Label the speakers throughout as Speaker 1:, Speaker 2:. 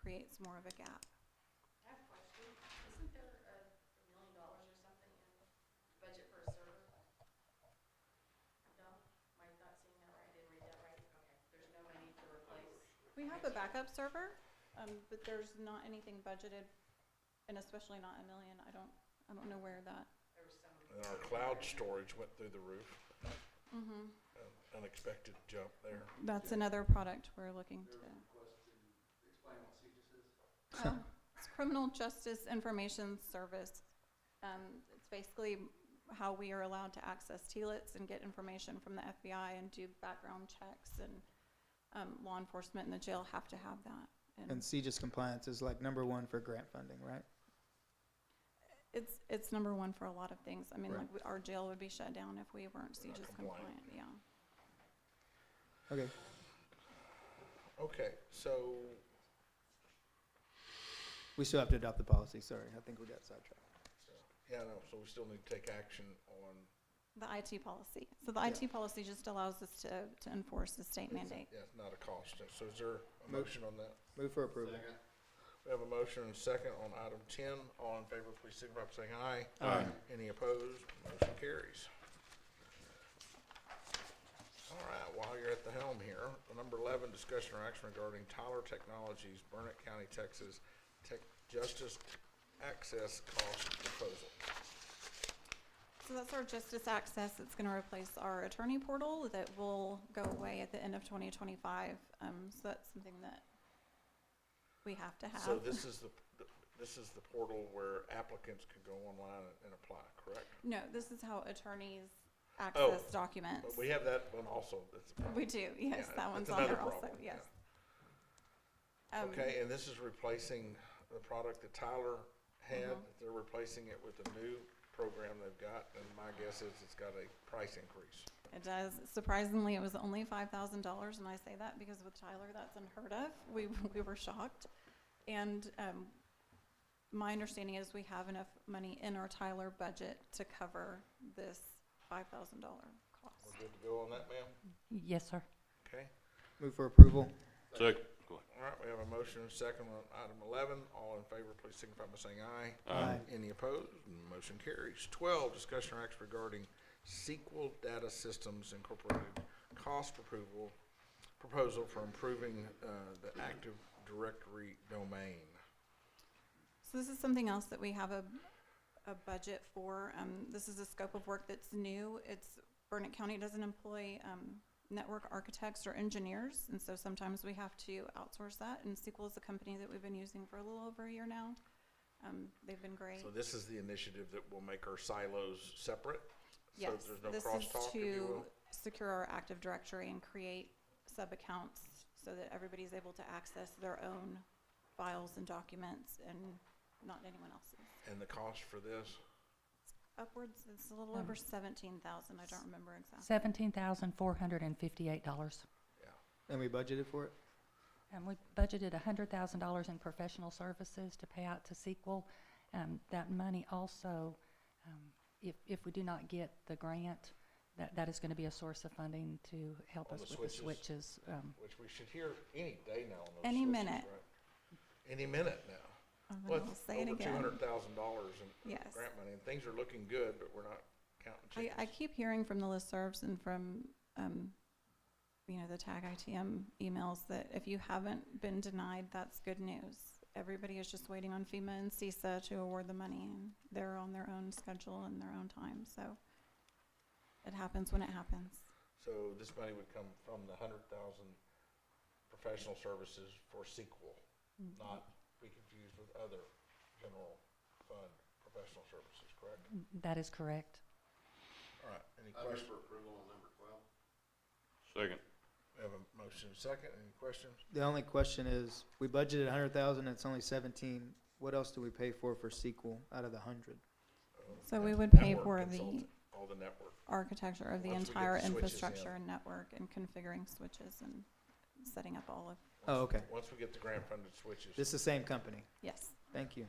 Speaker 1: creates more of a gap.
Speaker 2: I have a question. Isn't there a a million dollars or something in the budget for a server? No? Am I not seeing that right? I didn't read that right? Okay. There's no money to replace.
Speaker 1: We have a backup server, um, but there's not anything budgeted, and especially not a million, I don't, I don't know where that,
Speaker 2: There was some.
Speaker 3: And our uh, cloud storage went through the roof,
Speaker 1: mhm.
Speaker 3: An unexpected jump there.
Speaker 1: That's another product we're looking to. Oh, It's Criminal Justice Information Service. Um, it's basically how we are allowed to access TLITs and get information from the FBI and do background checks and, um, law enforcement and the jail have to have that.
Speaker 4: And CGIS compliance is like number one for grant funding, right?
Speaker 1: It's, it's number one for a lot of things. I mean,
Speaker 4: Right.
Speaker 1: like, we- our jail would be shut down if we weren't
Speaker 3: We're not
Speaker 1: CJIS
Speaker 3: compliant.
Speaker 1: compliant, yeah.
Speaker 4: Okay,
Speaker 3: Okay, so
Speaker 4: we still have to adopt the policy, sorry, I think we got sidetracked.
Speaker 3: yeah, no, so we still need to take action on,
Speaker 1: The IT policy. So the
Speaker 4: Yeah.
Speaker 1: IT policy just allows us to, to enforce the state mandate.
Speaker 3: yeah, it's not a cost. So is there a
Speaker 4: Mo-
Speaker 3: motion on that?
Speaker 4: Move for approval.
Speaker 3: We have a motion and a second on item ten. All in favor, please signify by saying aye.
Speaker 4: Aye.
Speaker 3: Any opposed? Motion carries. All right, while you're at the helm here, number eleven, discussion or action regarding Tyler Technologies, Burnett County, Texas, Tech Justice Access Cost Proposal.
Speaker 1: So that's our justice access. It's gonna replace our attorney portal that will go away at the end of twenty twenty-five. Um, so that's something that we have to have.
Speaker 3: So this is the, this is the portal where applicants can go online and apply, correct?
Speaker 1: No, this is how attorneys access documents.
Speaker 3: Oh, But we have that one also. That's a problem.
Speaker 1: We do, yes,
Speaker 3: Yeah,
Speaker 1: that one's
Speaker 3: that's
Speaker 1: on there
Speaker 3: another
Speaker 1: also,
Speaker 3: problem,
Speaker 1: yes. Um,
Speaker 3: Okay, and this is replacing the product that Tyler had, they're replacing it with a new program they've got, and my guess is it's got a price increase.
Speaker 1: It does. Surprisingly, it was only five thousand dollars, and I say that because with Tyler, that's unheard of. We we were shocked, and um, my understanding is we have enough money in our Tyler budget to cover this five thousand dollar cost.
Speaker 3: We're good to go on that, ma'am?
Speaker 5: Yes, sir.
Speaker 3: Okay,
Speaker 4: Move for approval.
Speaker 6: Second.
Speaker 3: all right, we have a motion and a second on item eleven, all in favor, please signify by saying aye.
Speaker 4: Aye.
Speaker 3: Any opposed? Motion carries. Twelve, discussion or action regarding SQL Data Systems Incorporated cost approval, proposal for improving, uh, the Active Directory domain.
Speaker 1: So this is something else that we have a, a budget for. Um, this is a scope of work that's new. It's, Burnett County doesn't employ, um, network architects or engineers, and so sometimes we have to outsource that. And SQL is a company that we've been using for a little over a year now. Um, they've been great.
Speaker 3: So this is the initiative that will make our silos separate?
Speaker 1: Yes,
Speaker 3: So there's no
Speaker 1: this is
Speaker 3: crosstalk, if you
Speaker 1: to
Speaker 3: will?
Speaker 1: secure our Active Directory and create sub-accounts so that everybody's able to access their own files and documents and not anyone else's.
Speaker 3: And the cost for this?
Speaker 1: upwards, it's a little
Speaker 5: Um,
Speaker 1: over seventeen thousand, I don't remember exactly.
Speaker 5: Seventeen thousand four hundred and fifty-eight dollars.
Speaker 4: And we budgeted for it?
Speaker 5: And we budgeted a hundred thousand dollars in professional services to pay out to Sequel. Um, that money also, um, if, if we do not get the grant, that, that is gonna be a source of funding to help
Speaker 3: On
Speaker 5: us
Speaker 3: the
Speaker 5: with the
Speaker 3: switches.
Speaker 5: switches. Um,
Speaker 3: Which we should hear any day now on those
Speaker 1: Any
Speaker 3: switches,
Speaker 1: minute.
Speaker 3: right? Any minute now.
Speaker 1: And then
Speaker 3: Well,
Speaker 1: I'll
Speaker 3: it's
Speaker 1: say it
Speaker 3: Over two
Speaker 1: again.
Speaker 3: hundred thousand dollars in
Speaker 1: Yes.
Speaker 3: grant money, and things are looking good, but we're not counting
Speaker 1: I,
Speaker 3: chickens.
Speaker 1: I keep hearing from the listservs and from, um, you know, the tag ITM emails that if you haven't been denied, that's good news. Everybody is just waiting on FEMA and CISA to award the money, and they're on their own schedule and their own time, so it happens when it happens.
Speaker 3: So this money would come from the hundred thousand professional services for sequel,
Speaker 1: Mm-hmm.
Speaker 3: not be confused with other general fund professional services, correct?
Speaker 5: that is correct.
Speaker 3: All right, any questions?
Speaker 6: Second.
Speaker 3: We have a motion and a second, any questions?
Speaker 4: The only question is, we budgeted a hundred thousand, it's only seventeen. What else do we pay for for SQL out of the hundred?
Speaker 1: So we
Speaker 3: Net-
Speaker 1: would pay
Speaker 3: network
Speaker 1: for the
Speaker 3: consultant, All the network.
Speaker 1: architecture of the
Speaker 3: Once we get
Speaker 1: entire
Speaker 3: the switches in.
Speaker 1: infrastructure and network and configuring switches and setting up all of,
Speaker 4: Oh, okay.
Speaker 3: Once we get the grant funded switches.
Speaker 4: This is the same company.
Speaker 1: yes.
Speaker 4: Thank you.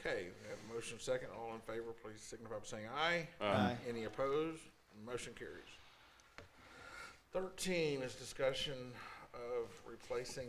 Speaker 3: Okay, we have a motion second. All in favor, please signify by saying aye.
Speaker 4: Aye.
Speaker 3: Any opposed? Motion carries. Thirteen is discussion of replacing